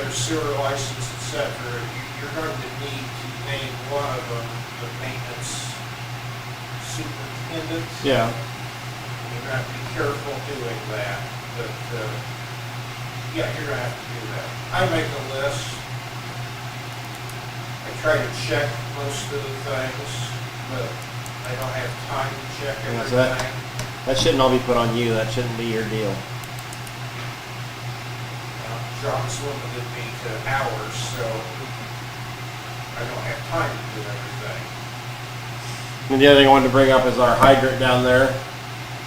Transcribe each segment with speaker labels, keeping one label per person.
Speaker 1: their sewer license, et cetera, you- you're going to need to name one of them the maintenance superintendent.
Speaker 2: Yeah,
Speaker 1: You're gonna have to be careful doing that, but, uh, yeah, you're gonna have to do that. I make a list. I try to check most of the things, but I don't have time to check
Speaker 2: Yeah, is that-
Speaker 1: everything.
Speaker 2: that shouldn't all be put on you. That shouldn't be your deal.
Speaker 1: Uh, John's limited me to hours, so I don't have time to do everything.
Speaker 2: And the other thing I wanted to bring up is our hydrant down there.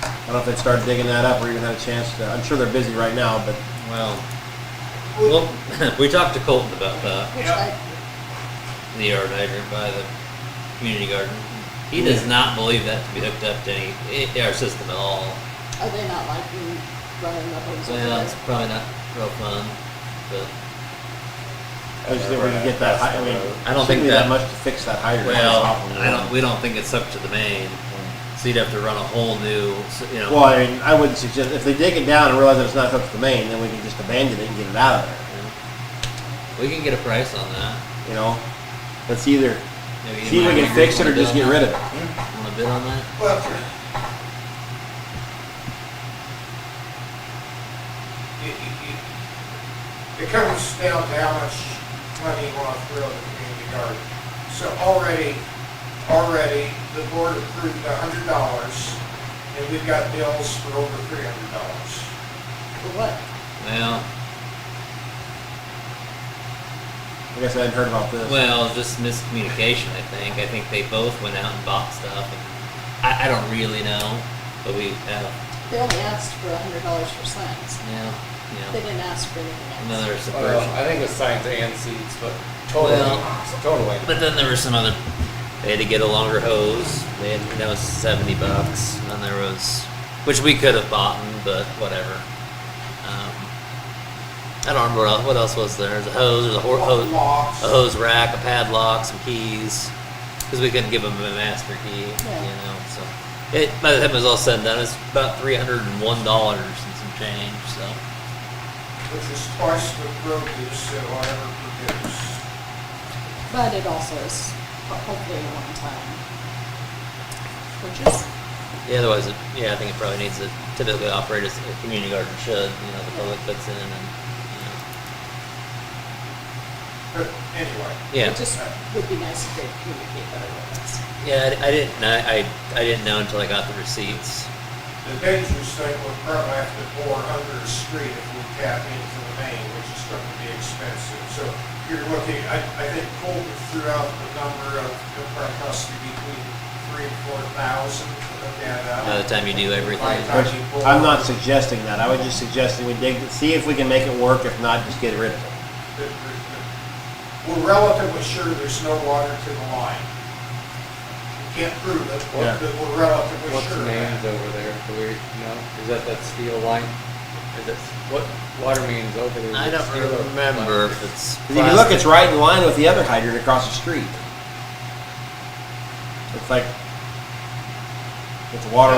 Speaker 2: I don't know if they started digging that up or even had a chance to. I'm sure they're busy right now, but
Speaker 3: Well, well, we talked to Colton about that,
Speaker 4: Which
Speaker 1: Yeah.
Speaker 4: I-
Speaker 3: the yard hydrant by the community garden. He does not believe that to be hooked up to any, any our system at all.
Speaker 4: Are they not liking running the hose over
Speaker 3: Well, it's
Speaker 4: us?
Speaker 3: probably not real fun, but
Speaker 2: I just think we can get that. hy- I mean,
Speaker 3: I don't
Speaker 2: shouldn't
Speaker 3: think
Speaker 2: be that
Speaker 3: that-
Speaker 2: much to fix that hydrant.
Speaker 3: well,
Speaker 2: It's awful.
Speaker 3: I don't. We don't think it's up to the main, so you'd have to run a whole new, s- you know.
Speaker 2: Well, I mean, I wouldn't suggest if they dig it down and realize that it's not hooked to the main, then we can just abandon it and get it out of there.
Speaker 3: we can get a price on that.
Speaker 2: You know, that's either
Speaker 3: Maybe you
Speaker 2: see if
Speaker 3: might
Speaker 2: we can
Speaker 3: wanna
Speaker 2: fix it or
Speaker 3: bid
Speaker 2: just
Speaker 3: on
Speaker 2: get
Speaker 3: that.
Speaker 2: rid of it.
Speaker 3: Want to bid on that?
Speaker 1: Well, it, it, it, it comes down to how much money you want to throw in the community garden. So already, already, the board approved a hundred dollars, and we've got bills for over three hundred dollars.
Speaker 4: For what?
Speaker 3: Well,
Speaker 2: I guess I hadn't heard about this.
Speaker 3: well, just miscommunication. I think. I think they both went out and bought stuff. And I, I don't really know, but we have.
Speaker 4: They only asked for a hundred dollars for signs.
Speaker 3: Yeah,
Speaker 4: They
Speaker 3: yeah.
Speaker 4: didn't ask for anything else.
Speaker 3: Another
Speaker 5: Well,
Speaker 3: subversion.
Speaker 5: I think it's signs and seeds, but totally,
Speaker 3: Well-
Speaker 5: totally.
Speaker 3: But then there were some other. They had to get a longer hose. They had, that was seventy bucks, and there was, which we could have bought, but whatever. Um, I don't remember what else. What else was there? There's a hose. There's a hor- hose,
Speaker 1: Locks.
Speaker 3: a hose rack, a padlock, some keys, because we couldn't give them a master key.
Speaker 4: Yeah.
Speaker 3: You know, so it by the time it was all said and done, it's about three hundred and one dollars and some change. So
Speaker 1: which is twice the produce that will ever produce.
Speaker 4: But it also is ho- hopefully a one time. Which is,
Speaker 3: yeah, otherwise, it, yeah, I think it probably needs to typically operate as a community garden should. You know, the public puts in and. You know,
Speaker 1: But anyway,
Speaker 4: it
Speaker 3: Yeah,
Speaker 4: just would be nice if they communicate better with us.
Speaker 3: yeah. I, I didn't. I, I I didn't know until I got the receipts.
Speaker 1: the dangerous thing, we'll probably have to bore under the street if we tap into the main, which is going to be expensive. So you're looking, I, I think Colton threw out the number of, it probably costs you between three and four thousand to hook that up.
Speaker 3: By the time you do
Speaker 1: By
Speaker 3: everything,
Speaker 1: the time
Speaker 2: Which,
Speaker 1: you bore-
Speaker 2: I'm not suggesting that. I would just suggest that we dig, see if we can make it work. If not, just get rid of it.
Speaker 1: that- that- that- We're relatively sure there's no water to the line. We can't prove it,
Speaker 2: Yeah.
Speaker 1: but we're relatively sure.
Speaker 5: What's
Speaker 1: of
Speaker 5: mains
Speaker 1: that.
Speaker 5: over there? Do we know? Is that that steel line? Is it, what water mains over there? Is
Speaker 3: I
Speaker 5: it
Speaker 3: don't
Speaker 5: steel or
Speaker 3: remember
Speaker 5: plastic?
Speaker 3: if it's.
Speaker 2: 'Cause if you look, it's right in line with the other hydrant across the street. It's like it's water.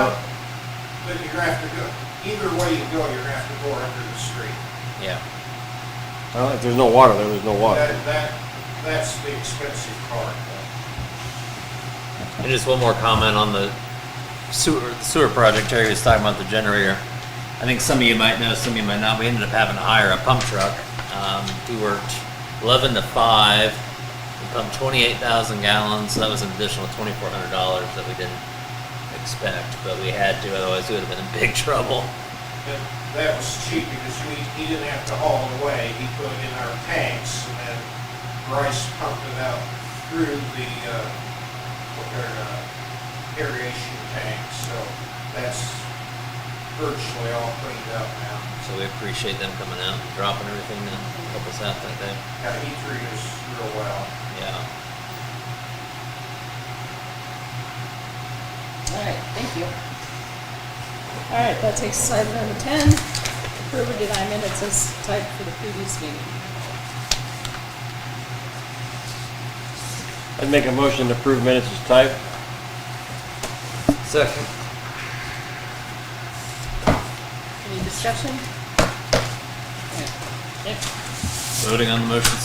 Speaker 1: But you're gonna have to go, either way you go, you're gonna have to bore under the street.
Speaker 3: plastic. Yeah,
Speaker 2: Well, if there's no water there, there's no water.
Speaker 1: That, that, that's the expensive part.
Speaker 3: and just one more comment on the sewer sewer project. Terry was talking about the generator. I think some of you might know, some of you might not. We ended up having to hire a pump truck. Um, we worked eleven to five. We pumped twenty-eight thousand gallons. So that was an additional twenty-four hundred dollars that we didn't expect, but we had to. Otherwise, we would have been in big trouble.
Speaker 1: And that was cheap because we, he didn't have to haul it away, he put it in our tanks and then Bryce pumped it out through the, uh, what they're, uh, aeration tanks, so that's virtually all cleaned up now.
Speaker 3: So we appreciate them coming out and dropping everything to help us out that day.
Speaker 1: Now, he treated us real well.
Speaker 3: Yeah.
Speaker 4: All right, thank you. All right, that takes us to item number ten, approve or deny minutes as typed for the previous meeting.
Speaker 2: I'd make a motion to approve minutes as type.
Speaker 3: Second.
Speaker 4: Any discussion? All right. Nick,
Speaker 3: Voting on the motion